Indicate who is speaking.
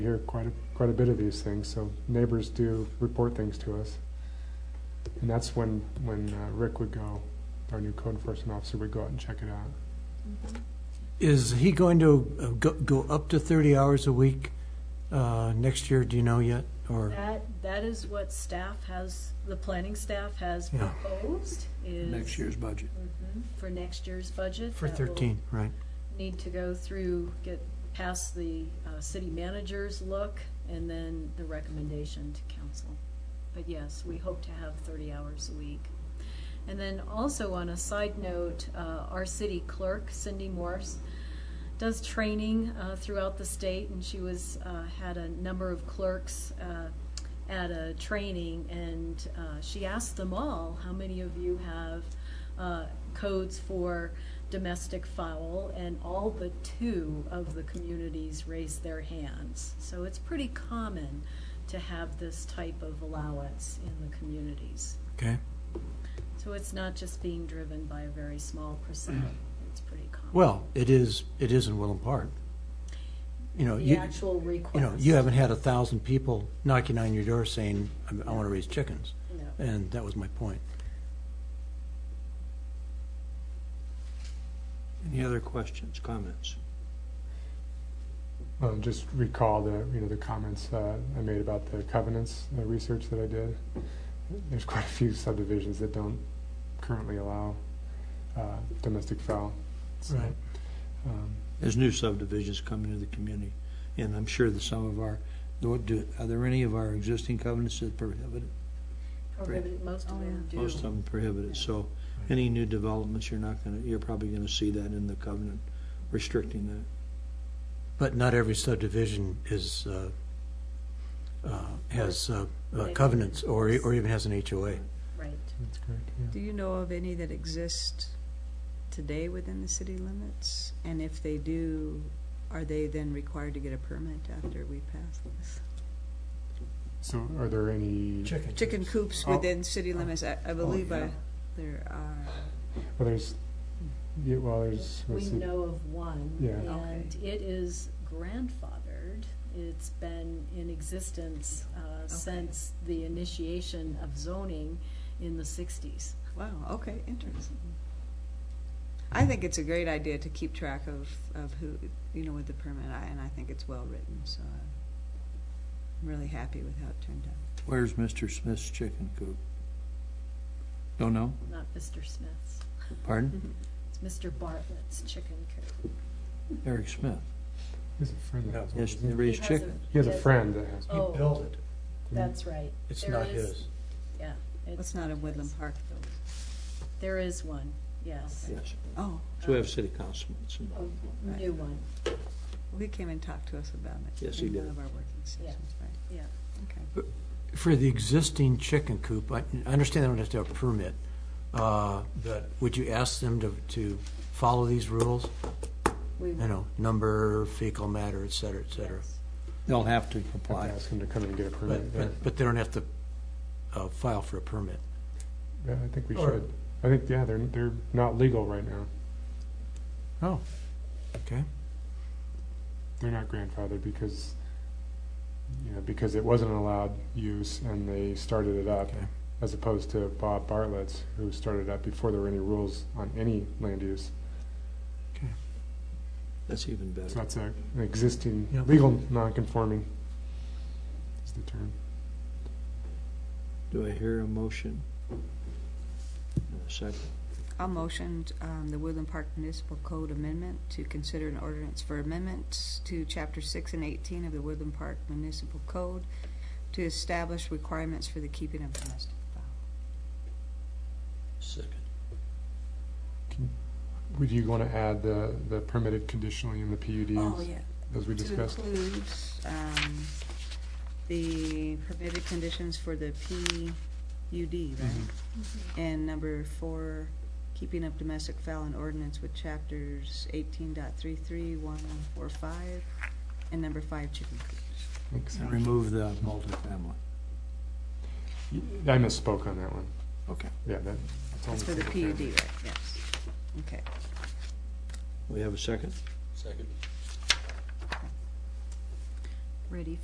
Speaker 1: We hear quite a, quite a bit of these things, so neighbors do report things to us. And that's when, when uh, Rick would go, our new code enforcement officer would go out and check it out.
Speaker 2: Is he going to uh, go, go up to 30 hours a week uh, next year, do you know yet? Or,
Speaker 3: That, that is what staff has, the planning staff has
Speaker 2: Yeah.
Speaker 3: proposed is.
Speaker 4: next year's budget.
Speaker 3: Mhm, For next year's budget.
Speaker 2: for
Speaker 3: that will
Speaker 2: 13, right?
Speaker 3: Need to go through, get past the uh, city manager's look and then the recommendation to council. But yes, we hope to have 30 hours a week. And then also on a side note, uh, our city clerk, Cindy Morse, does training uh, throughout the state, and she was, uh, had a number of clerks uh, at a training, and uh, she asked them all, how many of you have uh, codes for domestic fowl? And all but two of the communities raised their hands. So it's pretty common to have this type of allowance in the communities.
Speaker 2: Okay.
Speaker 3: So it's not just being driven by a very small percent, it's pretty common.
Speaker 2: Well, it is, it is in Willem Park. You know,
Speaker 3: The
Speaker 2: you,
Speaker 3: actual request.
Speaker 2: you know, you haven't had a thousand people knocking on your door saying, I, I want to raise chickens.
Speaker 3: No.
Speaker 2: And that was my point.
Speaker 4: Any other questions, comments?
Speaker 1: Um, just recall the, you know, the comments uh, I made about the covenants, the research that I did. There's quite a few subdivisions that don't currently allow uh, domestic fowl. So,
Speaker 2: Right.
Speaker 1: um,
Speaker 4: There's new subdivisions coming to the community, and I'm sure that some of our, do- do- are there any of our existing covenants that prohibit it?
Speaker 3: Prohibited, most of them do.
Speaker 4: Most of them prohibit it, so any new developments, you're not gonna, you're probably gonna see that in the covenant restricting that.
Speaker 2: But not every subdivision is, uh, uh, has uh, uh, covenants or, or even has an HOA.
Speaker 3: Right.
Speaker 1: That's correct, yeah.
Speaker 5: Do you know of any that exist today within the city limits? And if they do, are they then required to get a permit after we pass this?
Speaker 1: So are there any?
Speaker 2: Chickens.
Speaker 5: Chicken coops
Speaker 1: Oh.
Speaker 5: within city limits, I, I believe I,
Speaker 1: yeah.
Speaker 5: there are.
Speaker 1: Well, there's, yeah, well, there's,
Speaker 3: We
Speaker 1: let's see.
Speaker 3: know of one.
Speaker 1: Yeah.
Speaker 3: And it is grandfathered. It's been in existence uh, since the initiation of zoning in the sixties.
Speaker 5: Wow, okay, interesting. I think it's a great idea to keep track of, of who, you know, with the permit, I- and I think it's well-written, so I'm really happy with how it turned out.
Speaker 4: Where's Mr. Smith's chicken coop? Don't know?
Speaker 3: not Mr. Smith's.
Speaker 4: Pardon?
Speaker 3: It's Mr. Bartlett's chicken coop.
Speaker 4: Eric Smith.
Speaker 1: He has a friend that has one,
Speaker 4: Mm-hmm. Yes,
Speaker 1: doesn't
Speaker 4: they
Speaker 1: he?
Speaker 4: raise
Speaker 3: He has a-
Speaker 4: chickens.
Speaker 1: He has a
Speaker 3: Yes.
Speaker 1: friend that has.
Speaker 3: Oh.
Speaker 2: built it.
Speaker 3: That's right.
Speaker 2: It's
Speaker 3: There
Speaker 2: not
Speaker 3: is-
Speaker 2: his.
Speaker 3: Yeah.
Speaker 5: It's not a
Speaker 3: his.
Speaker 5: Woodland Park though.
Speaker 3: There is one, yes.
Speaker 4: Yes.
Speaker 5: Oh,
Speaker 4: So we have city councilmen.
Speaker 3: A new one,
Speaker 5: He came and talked to us about it.
Speaker 4: Yes, he
Speaker 5: in
Speaker 4: did.
Speaker 5: one of our working sessions, right?
Speaker 3: yeah.
Speaker 5: Okay.
Speaker 2: For the existing chicken coop, I I understand they don't have to have a permit, uh, but would you ask them to, to follow these rules?
Speaker 3: We
Speaker 2: You know, number, fecal matter, et cetera, et cetera.
Speaker 3: yes.
Speaker 4: They'll have to
Speaker 1: Have to
Speaker 4: comply.
Speaker 1: ask him to come and get a permit.
Speaker 2: But,
Speaker 1: yeah.
Speaker 2: but, but they don't have to uh, file for a permit.
Speaker 1: Yeah, I think we
Speaker 2: Or-
Speaker 1: should. I think, yeah, they're, they're not legal right now.
Speaker 2: Oh, okay.
Speaker 1: They're not grandfathered because, you know, because it wasn't allowed use and they started it up.
Speaker 2: Okay.
Speaker 1: As opposed to Bob Bartlett's, who started up before there were any rules on any land use.
Speaker 4: That's even
Speaker 1: So
Speaker 4: better.
Speaker 1: that's a, an existing,
Speaker 2: Yeah.
Speaker 1: legal non-conforming is the term.
Speaker 4: Do I hear a motion? And a second?
Speaker 5: I'll motion um, the Woodland Park Municipal Code Amendment to consider an ordinance for amendments to Chapter 6 and 18 of the Woodland Park Municipal Code to establish requirements for the keeping of domestic fowl.
Speaker 4: Second.
Speaker 1: Would you want to add the, the permitted conditionally in the PUDs,
Speaker 5: Oh, yeah.
Speaker 1: as we
Speaker 5: To
Speaker 1: discussed?
Speaker 5: include um, the permitted conditions for the PUD,
Speaker 4: Mm-hmm.
Speaker 5: right? And number four, keeping up domestic fowl and ordinance with Chapters 18.33145, and number five, chicken coops.
Speaker 1: Makes
Speaker 4: And
Speaker 1: sense.
Speaker 4: remove the multifamily.
Speaker 1: I misspoke on that one.
Speaker 4: Okay.
Speaker 1: Yeah, that, that's all.
Speaker 5: That's for the PUD, right, yes. Okay.
Speaker 4: We have a second? Second.
Speaker 3: ready